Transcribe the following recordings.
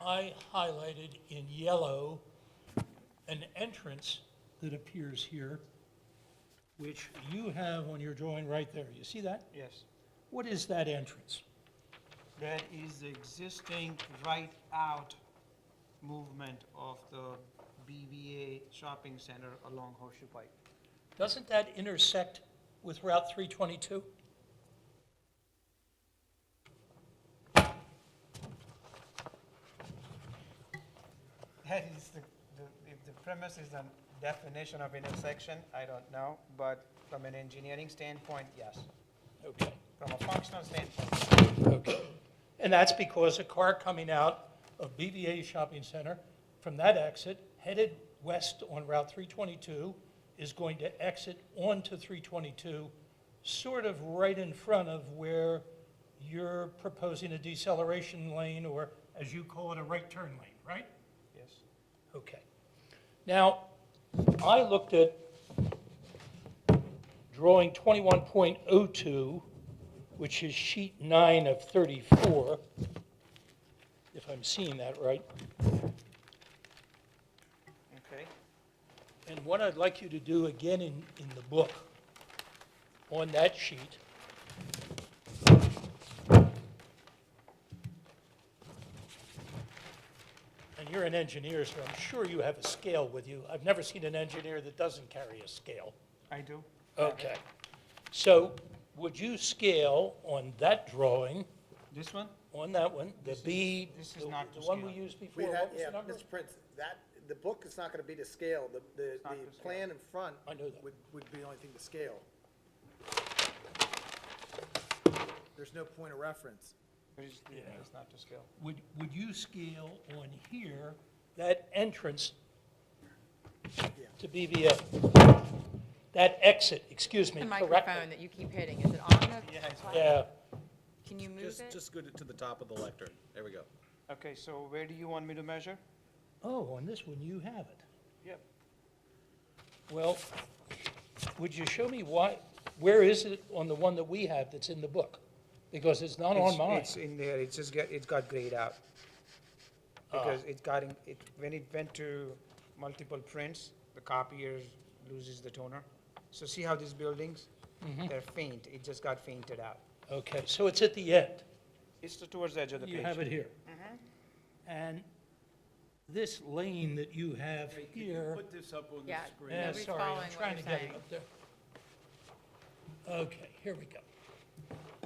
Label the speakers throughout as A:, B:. A: I highlighted in yellow an entrance that appears here, which you have on your drawing right there. You see that?
B: Yes,
A: What is that entrance?
B: that is the existing right-out movement of the BVA shopping center along Horseshoe Pike.
A: Doesn't that intersect with Route 322?
B: That is the, the- if the premise is the definition of intersection, I don't know, but from an engineering standpoint, yes.
A: Okay,
B: From a functional standpoint,
A: okay. And that's because a car coming out of BVA Shopping Center from that exit, headed west on Route 322, is going to exit onto 322, sort of right in front of where you're proposing a deceleration lane, or as you call it, a right turn lane, right?
B: yes.
A: Okay. Now, I looked at drawing 21.02, which is sheet nine of 34, if I'm seeing that right.
B: Okay,
A: And what I'd like you to do again in, in the book, on that sheet, and you're an engineer, so I'm sure you have a scale with you. I've never seen an engineer that doesn't carry a scale.
B: I do.
A: Okay. So would you scale on that drawing,
B: This one?
A: on that one, the B,
B: this is
A: the
B: not to
A: the one we
B: scale.
A: used before,
C: We
A: what
C: had,
A: was
C: yeah,
A: the number?
C: Mr. Prince, that, the book is not gonna be to scale, the, the,
B: not to
C: the
B: scale.
C: plan in front.
A: I know that.
C: Would, would be the only thing to scale. There's no point of reference.
B: It is, it's not to scale.
A: Would, would you scale on here, that entrance to BVA? That exit, excuse me,
D: The
A: correct?
D: microphone that you keep hitting, is it on
B: Yeah, it's
D: the?
A: Yeah,
D: Can you move
E: Just,
D: it?
E: just go to to the top of the lectern. There we go.
B: Okay, so where do you want me to measure?
A: oh, on this one, you have it.
B: Yep.
A: Well, would you show me why, where is it on the one that we have that's in the book? Because it's not on
B: It's-
A: mine.
B: It's in there, it's just, got- it's got grayed out.
A: Ah.
B: Because it got, in- it, when it went to multiple prints, the copier loses the toner. So see how these buildings,
A: Mm-hmm.
B: they're faint, it just got fainted out.
A: Okay, so it's at the end.
B: It's the towards the edge of the page.
A: You have it here.
D: Mm-hmm.
A: And this lane that you have here.
F: Put this up on the
D: Yeah,
F: screen.
A: Yeah,
D: nobody's
A: sorry, I'm
D: following what
A: trying
D: you're
A: to get it
D: saying.
A: up there. Okay, here we go.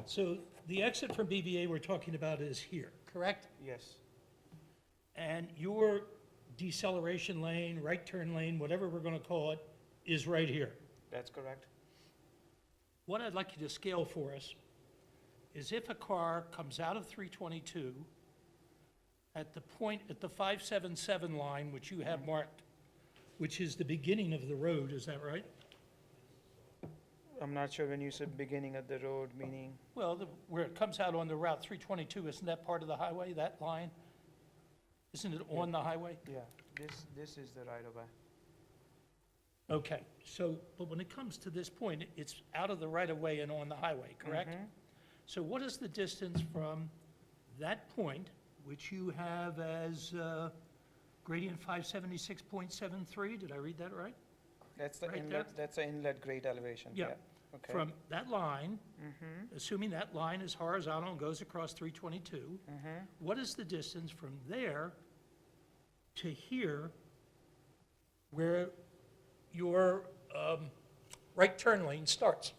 A: So the exit from BVA we're talking about is here, correct?
B: Yes,
A: And your deceleration lane, right turn lane, whatever we're going to call it, is right here.
B: that's correct.
A: What I'd like you to scale for us is if a car comes out of 322 at the point, at the 577 line, which you have marked, which is the beginning of the road, is that right?
B: I'm not sure when you said beginning of the road, meaning,
A: Well, the- where it comes out on the Route 322, isn't that part of the highway, that line? Isn't it on the highway?
B: yeah, this, this is the right of way.
A: Okay, so, but when it comes to this point, it- it's out of the right-of-way and on the highway, correct? So what is the distance from that point, which you have as uh, gradient 576.73? Did I read that right?
B: That's the
A: Right
B: inlet, that's the inlet grade elevation, yeah.
A: Yeah,
B: Okay. Mm-hmm.
A: From that line, assuming that line is horizontal and goes across 322,
B: Mm-hmm.
A: what is the distance from there to here where your um, right turn lane starts?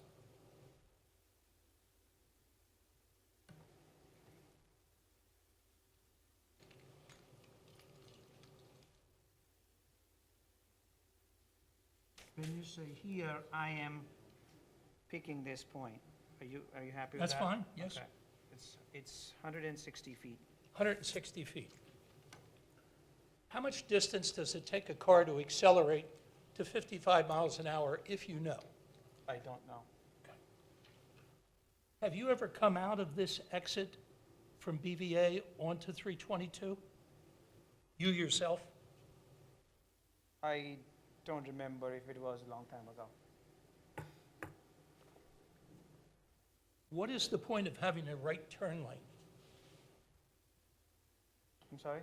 B: When you say here, I am picking this point. Are you, are you happy with that?
A: That's fine, yes.
B: Okay. It's, it's 160 feet.
A: 160 feet. How much distance does it take a car to accelerate to 55 miles an hour if you know?
B: I don't know.
A: Have you ever come out of this exit from BVA onto 322? You yourself?
B: I don't remember if it was a long time ago.
A: What is the point of having a right turn lane?
B: I'm sorry?